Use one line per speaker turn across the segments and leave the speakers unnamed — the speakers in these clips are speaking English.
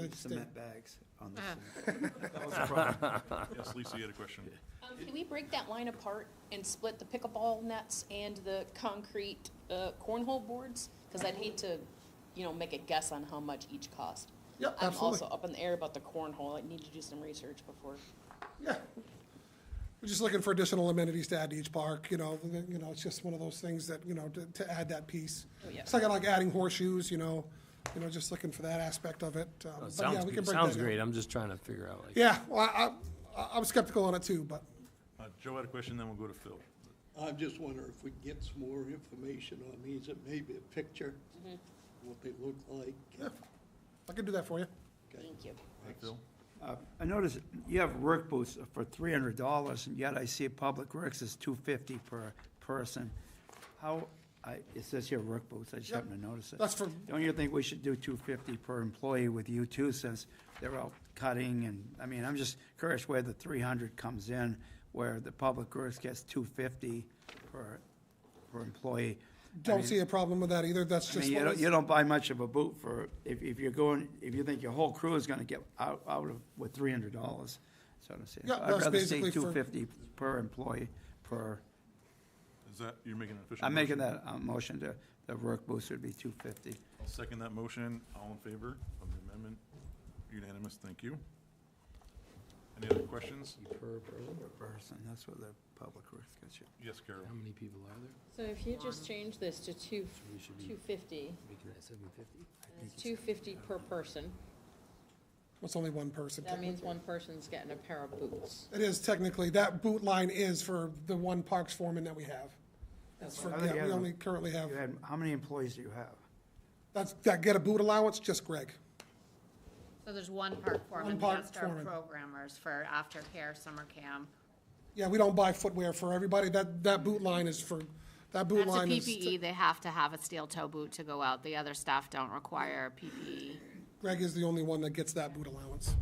Thank you, Steve.
cement bags on the
Ah.
side. That was a problem.
Yes, Lisa, you had a question.
Um, Can we break that line apart and split the pickleball nets and the concrete uh, cornhole boards? Because I'd hate to, you know, make a guess on how much each cost.
Yep,
I'm
absolutely.
also up in the air about the cornhole. I need to do some research before.
Yeah. We're just looking for additional amenities to add to each park, you know, you know, it's just one of those things that, you know, to, to add that piece.
Oh, yeah.
It's like, like adding horseshoes, you know, you know, just looking for that aspect of it. um, but yeah,
Sounds,
we
good-
can break
sounds
that down.
great. I'm just trying to figure out like.
Yeah, well, I, I, I'm skeptical on it too, but
Uh, Joe had a question, then we'll go to Phil.
I'm just wondering if we can get some more information on these, and maybe a picture, what they look like.
I can do that for you.
Thank you.
Right, Phil?
Uh, I noticed you have work booths for three hundred dollars, and yet I see Public Works is two fifty per person. How, I, it says here work booths, I just
Yep.
happened to notice it.
That's for-
Don't you think we should do two fifty per employee with you too, since they're out cutting and, I mean, I'm just curious where the three hundred comes in, where the Public Works gets two fifty per, per employee. I
Don't
mean-
see a problem with that either, that's
I
just.
mean, you
what
don't,
is-
you don't buy much of a boot for, if, if you're going, if you think your whole crew is gonna get out, out of, with three hundred dollars, so I'm saying.
Yeah,
So
that's
I'd rather see
basically for-
two fifty per employee, per,
Is that, you're making an official?
I'm making
motion?
that, uh motion to, the work boost would be two fifty.
I'll second that motion. All in favor of the amendment? Unanimous, thank you. Any other questions?
Per person, that's what the public works gets you.
Yes, Carol.
How many people are there?
So if you just change this to two,
We should be-
two fifty,
Making that seven fifty?
two fifty per person,
It's only one person.
that means one person's getting a pair of boots.
It is technically, that boot line is for the one parks foreman that we have. That's for,
right.
yeah, we only currently have,
You had, how many employees do you have?
that's, that get a boot allowance, just Greg.
So there's one park
One
foreman,
park
that's our
foreman.
programmers for aftercare, summer camp.
Yeah, we don't buy footwear for everybody. That, that boot line is for, that boot
That's a E.
line is.
PPE, they have to have a steel toe boot to go out, the other staff don't require PPE.
Greg is the only one that gets that boot allowance.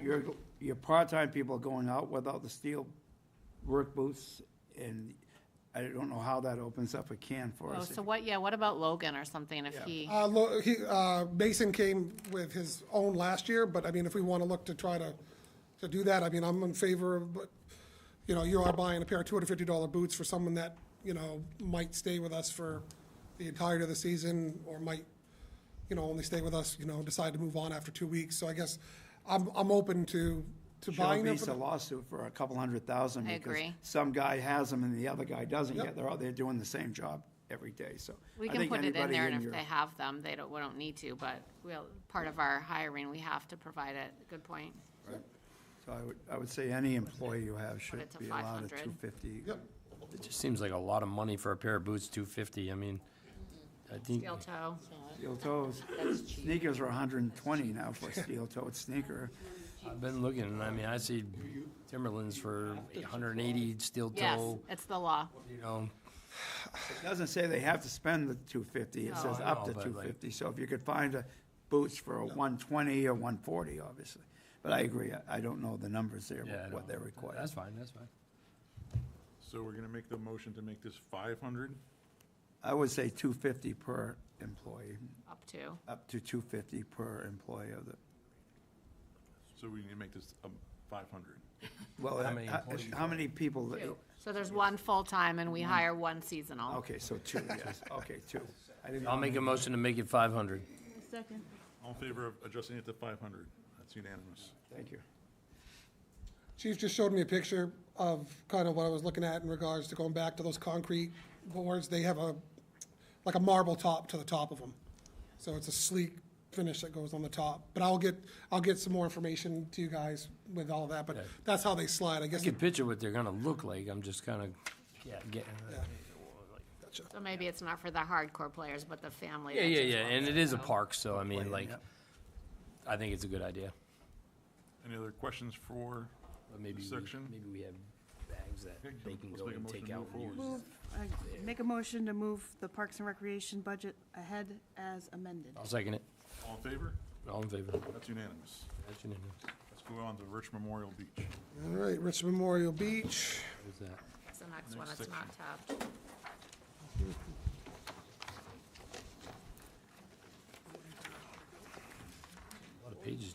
Your, your part-time people are going out without the steel work boots, and I don't know how that opens up a can for
Oh,
us.
so what, yeah, what about Logan or something if he,
Uh, lo- he, uh, Mason came with his own last year, but I mean, if we want to look to try to, to do that, I mean, I'm in favor of, but, you know, you are buying a pair of two hundred fifty dollar boots for someone that, you know, might stay with us for the entirety of the season, or might, you know, only stay with us, you know, decide to move on after two weeks. So I guess I'm, I'm open to, to
Sure
buying them.
beats
for
a
the-
lawsuit for a couple hundred thousand.
I
because
agree.
Some guy has them and the other guy doesn't,
Yep.
yet they're out there doing the same job every day, so.
we
I
can
think
put it in
anybody
there and if
your-
they have them, they don't, we don't need to, but we'll, part of our hiring, we have to provide it, good point.
So I would, I would say any employee you have should
it to
be allowed a
500.
two fifty.
Yep.
It just seems like a lot of money for a pair of boots, two fifty. I mean, I think,
Steel toe,
Steel toes, sneakers are hundred and twenty now for a steel toed sneaker.
I've been looking and I mean, I see Timberlands for hundred and eighty steel
yes,
toe,
it's the law.
you know.
It doesn't say they have to spend the two fifty, it
No,
says
I
up
know,
to
but
two
like-
fifty, so if you could find a boots for a one twenty or one forty, obviously. But I agree, I- I don't know the numbers there,
Yeah, I
what
know.
they're required.
That's fine, that's fine.
So we're gonna make the motion to make this five hundred?
I would say two fifty per employee,
Up to,
up to two fifty per employee of the,
So we need to make this um, five hundred.
well,
How many
uh,
employees?
how many people? that-
two. So there's one full-time and we hire one seasonal.
Okay, so two, yes, okay, two. I didn't-
I'll make a motion to make it five hundred.
All in favor of adjusting it to five hundred? That's unanimous.
Thank you.
Chief just showed me a picture of kind of what I was looking at in regards to going back to those concrete boards. They have a, like a marble top to the top of them. So it's a sleek finish that goes on the top. But I'll get, I'll get some more information to you guys with all of that, but that's how they slide, I
I
guess.
can picture what they're gonna look like. I'm just kinda, yeah, getting. uh,
So maybe it's not for the hardcore players, but the family.
Yeah,
that
yeah,
just
yeah.
wants
And it is a park, so I mean,
Playing,
like,
yep.
I think it's a good idea.
Any other questions for
But maybe
this
we,
section?
maybe we have bags that
Okay,
they can
let's
go
make a
and
motion
take
to
out
move
and
forward.
use.
Move, uh, make a motion to move the Parks and Recreation budget ahead as amended.
I'll second it.
All in favor?
All in favor?
That's unanimous.
That's unanimous.
Let's go on to Rich Memorial Beach.
All right, Rich Memorial Beach.
What is that?
It's the next one,
Next
it's not tabbed.
A lot of pages